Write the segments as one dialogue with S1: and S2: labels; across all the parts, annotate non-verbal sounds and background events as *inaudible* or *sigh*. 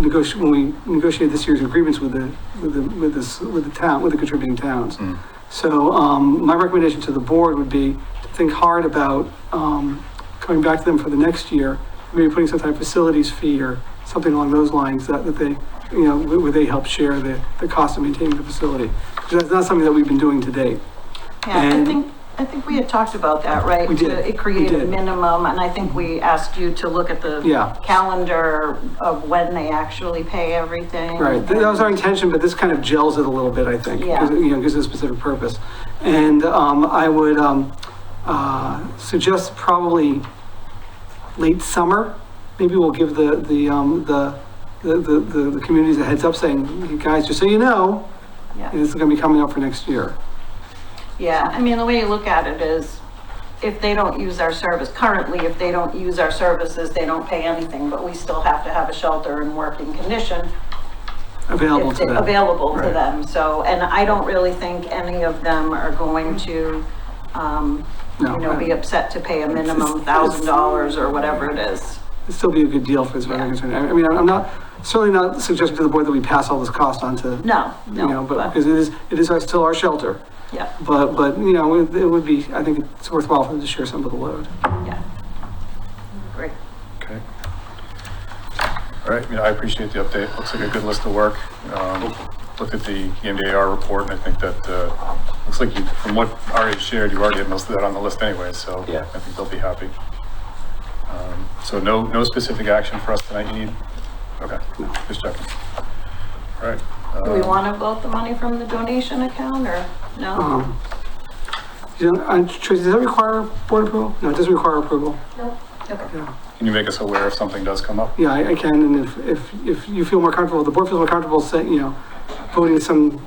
S1: negoti when we negotiated this year's agreements with the, with the, with this, with the town, with the contributing towns. So, um, my recommendation to the board would be to think hard about, um, coming back to them for the next year, maybe putting some type of facilities fee or something along those lines that, that they, you know, where where they help share the, the cost of maintaining the facility. 'Cause that's not something that we've been doing to date.
S2: Yeah, I
S1: And-
S2: think, I think we had talked about that, right?
S1: We did,
S2: To-
S1: we
S2: It created a
S1: did.
S2: minimum, and I think we asked you to look at the
S1: Yeah.
S2: calendar of when they actually pay everything.
S1: Right, that was our intention, but this kind of gels it a little bit, I think. 'cause,
S2: Yeah.
S1: You know, gives it a specific purpose. And um, I would um, uh, suggest probably late summer, maybe we'll give the, the, um, the, the, the- the, the communities a heads up saying, "You guys, just so you know,
S2: Yeah.
S1: this is gonna be coming up for next year.
S2: Yeah, I mean, the way you look at it is, if they don't use our service, currently, if they don't use our services, they don't pay anything, but we still have to have a shelter in working condition.
S1: Available
S2: if
S1: to
S2: they-
S1: them.
S2: Available to
S1: Right.
S2: them, so, and I don't really think any of them are going to, um,
S1: No,
S2: you know, be
S1: I-
S2: upset to pay a minimum
S1: it's-
S2: thousand dollars or whatever it is.
S1: It'd still be a good deal for as far as I'm concerned. I I mean, I'm not, certainly not suggesting to the board that we pass all this cost on to.
S2: No,
S1: You know,
S2: no,
S1: but,
S2: but,
S1: because it is, it is our- still our shelter.
S2: yeah,
S1: But, but, you know, it it would be, I think it's worthwhile for them to share some of the load.
S2: yeah. Great.
S3: Okay. All right, you know, I appreciate the update. Looks like a good list of work. Um, Looked at the E EMDR report and I think that, uh, looks like you, from what Ari shared, you already had most of that on the list anyway, so.
S4: Yeah.
S3: I think they'll be happy. Um, So no, no specific action for us tonight, you need? Okay, just checking. All right.
S2: Do we
S3: um,
S2: want to vote the money from the donation account, or no?
S1: Um, You know, and Tracy, does that require board approval? No, it doesn't require approval.
S2: Okay.
S3: Can you make us aware if something does come up?
S1: Yeah, I, I can, and if, if, if you feel more comfortable, the board feels more comfortable saying, you know, voting some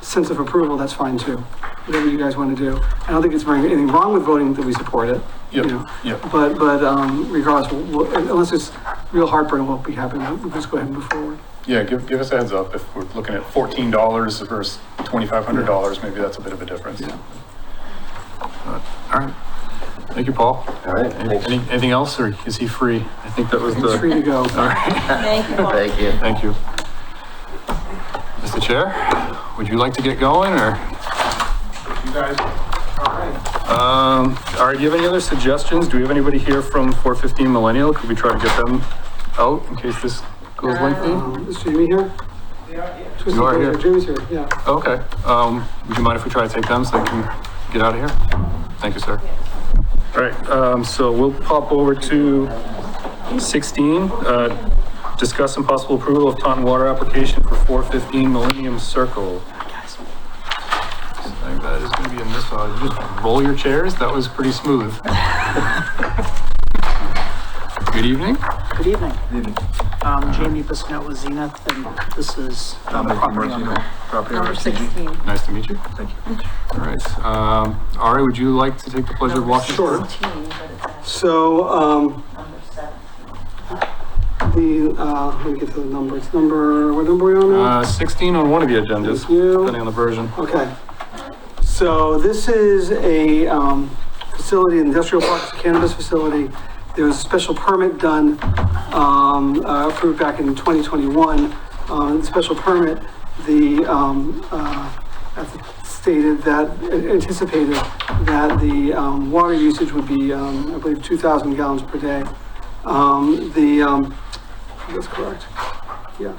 S1: sense of approval, that's fine too. Whatever you guys want to do. I don't think it's very- anything wrong with voting that we support it. you
S3: Yep,
S1: know.
S3: yep.
S1: But, but, um, regardless, we'll- we'll- unless it's real heartburn, we'll be happy, we'll just go ahead and move forward.
S3: Yeah, give, give us a heads up. If we're looking at fourteen dollars versus twenty-five hundred dollars, maybe that's a bit of a difference.
S1: Yeah.
S3: All right. Thank you, Paul.
S4: All right,
S3: Any-
S4: thanks.
S3: any- Anything else, or is he free? I think that was
S1: It's free to
S3: the,
S1: go.
S3: all right,
S2: Thank you. Paul.
S4: Thank you.
S3: thank you. Mr. Chair, would you like to get going, or?
S5: You guys, all right.
S3: Um, all right, do you have any other suggestions? Do we have anybody here from four fifteen Millennial? Could we try to get them out in case this goes lengthy?
S1: Um, Is Jamie here?
S5: They are, yeah.
S1: Twisted
S3: are
S1: Tail's
S3: here.
S1: Jamie's here, yeah.
S3: Okay, um, would you mind if we try to take them so they can get out of here? Thank you, sir. All right, um, so we'll pop over to sixteen, uh, discuss and possible approval of Taunton Water application for four fifteen Millennium Circle. I think that is gonna be in this one. You Just roll your chairs, that was pretty smooth. *laughs* Good evening.
S6: Good evening. Um, Jamie Bissonnette with Zenith, and this is um, property owner.
S2: Number 16.
S3: Nice to meet you. Thank you. All right, um, Ari, would you like to take the pleasure of walking?
S1: Sure.
S2: 16, but it's actually
S1: So, um,
S2: number seven.
S1: the, uh, let me get to the number, it's number, what number are we on now?
S3: Uh, 16 on one of the agendas,
S1: Thank you.
S3: depending on the version.
S1: Okay. So this is a um, facility, industrial park cannabis facility. There was a special permit done, um, uh, approved back in 2021. Um, the Special permit, the, um, uh, that's stated that, anticipated that the um, water usage would be, um, I believe, 2,000 gallons per day. Um, The, um, that's correct, yeah.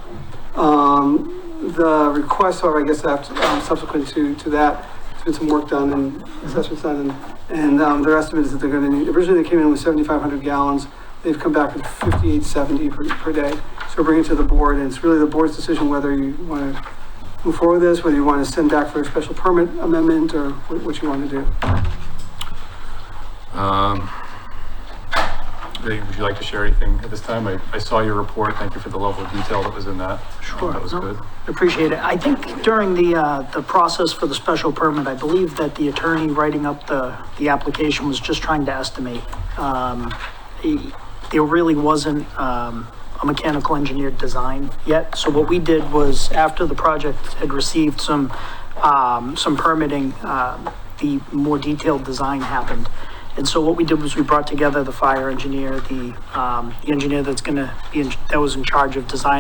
S1: Um, the requests are, I guess, after, um, subsequent to, to that, there's been some work done and assessments done, and, and, um, their estimate is that they're gonna need, originally they came in with seventy-five hundred gallons, they've come back with fifty-eight seventy per, per day. So bring it to the board, and it's really the board's decision whether you wanna move forward with this, whether you wanna send back for a special permit amendment, or what, what you wanna do.
S3: Um, hey, Would you like to share anything at this time? I I saw your report, thank you for the level of detail that was in that. Um,
S6: Sure.
S3: That was
S6: No,
S3: good.
S6: Appreciate it. I think during the, uh, the process for the special permit, I believe that the attorney writing up the, the application was just trying to estimate. Um, he- There really wasn't, um, a mechanical engineered design yet. So what we did was after the project had received some, um, some permitting, um, the more detailed design happened. And so what we did was we brought together the fire engineer, the, um, the engineer that's gonna be, in- that was in charge of designing